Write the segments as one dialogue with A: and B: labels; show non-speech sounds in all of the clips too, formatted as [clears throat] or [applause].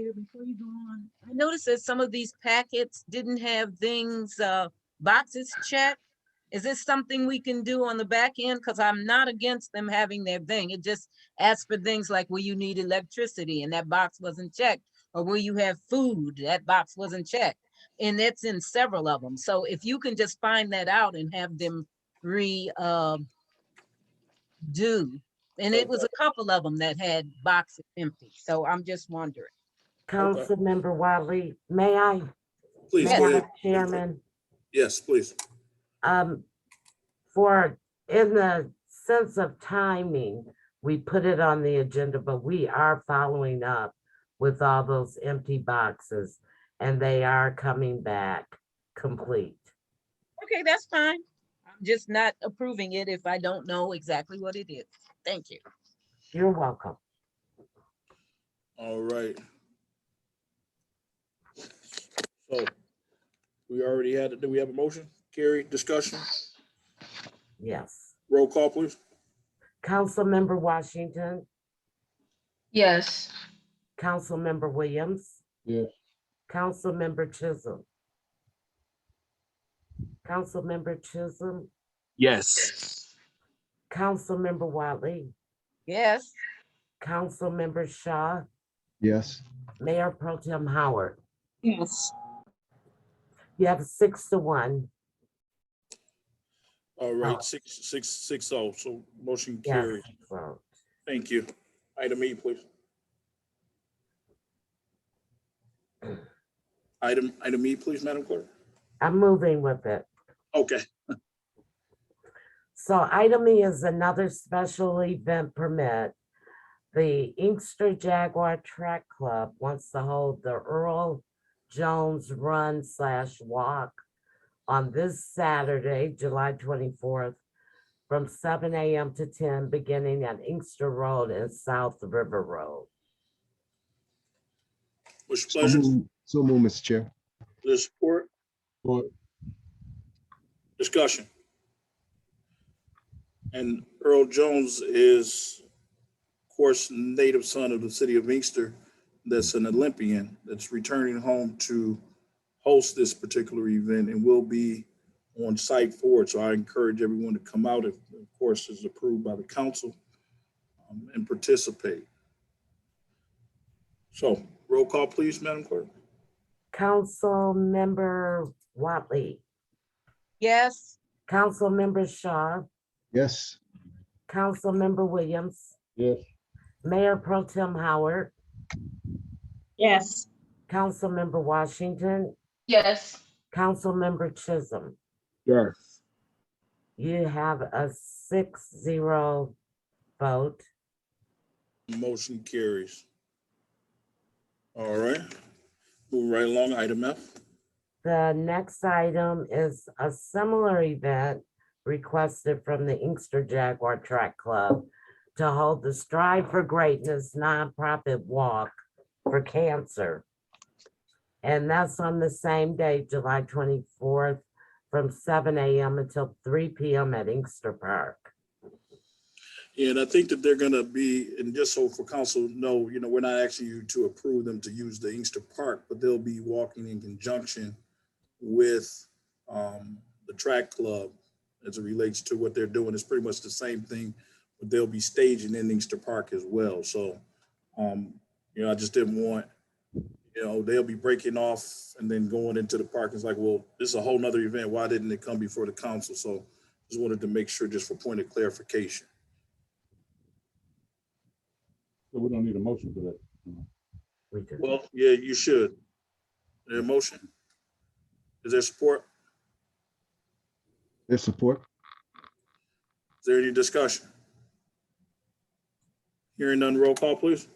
A: before you go on, I noticed that some of these packets didn't have things, uh, boxes checked. Is this something we can do on the back end? Because I'm not against them having their thing. It just asks for things like, will you need electricity? And that box wasn't checked. Or will you have food? That box wasn't checked. And that's in several of them. So if you can just find that out and have them re, um, do. And it was a couple of them that had boxes empty. So I'm just wondering.
B: Councilmember Wiley, may I?
C: Please,
B: Madam
C: go ahead.
B: Chairman,
C: Yes, please.
B: um, for, in the sense of timing, we put it on the agenda, but we are following up with all those empty boxes and they are coming back complete.
A: Okay, that's fine. I'm just not approving it if I don't know exactly what it is. Thank you.
B: You're welcome.
C: All right. So we already had, it. do we have a motion? Carrie, discussion,
B: Yes.
C: roll call, please.
B: Councilmember Washington,
D: Yes.
B: Councilmember Williams.
E: Yes.
B: Councilmember Chisholm. Councilmember Chisholm,
E: Yes.
B: Councilmember Wiley.
A: Yes,
B: Councilmember Shaw,
E: Yes.
B: Mayor Pro Tem Howard.
D: Yes.
B: You have six to one.
C: All
B: Oh.
C: right, six, six, six oh, so motion
B: Yes.
C: carried.
B: vote.
C: Thank you. Item E, [clears throat] please. Item, item E, please, Madam Clerk.
B: I'm moving with it.
C: Okay,
B: So item E is another special event permit. The Inkster Jaguar Track Club wants to hold the Earl Jones Run slash Walk on this Saturday, July twenty-fourth, from seven AM to ten, beginning at Inkster Road and South River Road.
C: with
E: So
C: pleasure,
E: move- so move, Mr. Chair.
C: the support, discussion. And Earl Jones is, of course, native son of the city of Inkster, that's an Olympian, that's returning home to host this particular event and will be on site for it. So I encourage everyone to come out, if, of course, is approved by the council, um, and participate. So roll call, please, Madam Clerk.
B: Councilmember Watley,
A: yes,
B: Councilmember Shaw,
E: Yes.
B: Councilmember Williams,
E: Yes.
B: Mayor Pro Tem Howard,
D: Yes.
B: Councilmember Washington,
D: Yes.
B: Councilmember Chisholm.
E: Yes.
B: You have a six zero vote.
C: Motion carries. All right, move right along, item F.
B: The next item is a similar event requested from the Inkster Jaguar Track Club to hold the Strive for Greatness nonprofit walk for cancer. And that's on the same day, July twenty-fourth, from seven AM until three PM at Inkster Park.
C: And I think that they're gonna be, and just so for council to know, you know, we're not asking you to approve them to use the Inkster Park, but they'll be walking in conjunction with um, the track club as it relates to what they're doing. It's pretty much the same thing, but they'll be staging in Inkster Park as well. So, um, you know, I just didn't want, you know, they'll be breaking off and then going into the park. It's like, well, this is a whole nother event. Why didn't it come before the council? So just wanted to make sure, just for point of clarification.
F: So we don't need a motion for that.
B: We do.
C: Well, yeah, you should. Their motion? Is there support?
E: There's support.
C: Is there any discussion? Hearing none, roll call, please.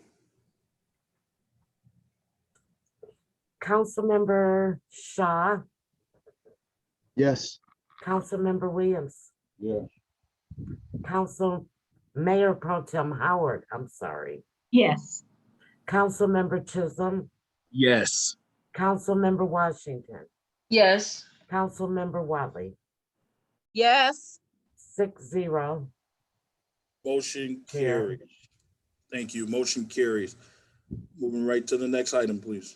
B: Councilmember Shaw,
E: Yes.
B: Councilmember Williams,
F: Yeah,
B: Council Mayor Pro Tem Howard, I'm sorry,
D: Yes.
B: Councilmember Chisholm,
E: Yes.
B: Councilmember Washington,
D: Yes.
B: Councilmember Watley,
A: yes.
B: six zero.
C: Motion
B: Carries.
C: carries. Thank you. Motion carries. Moving right to the next item, please.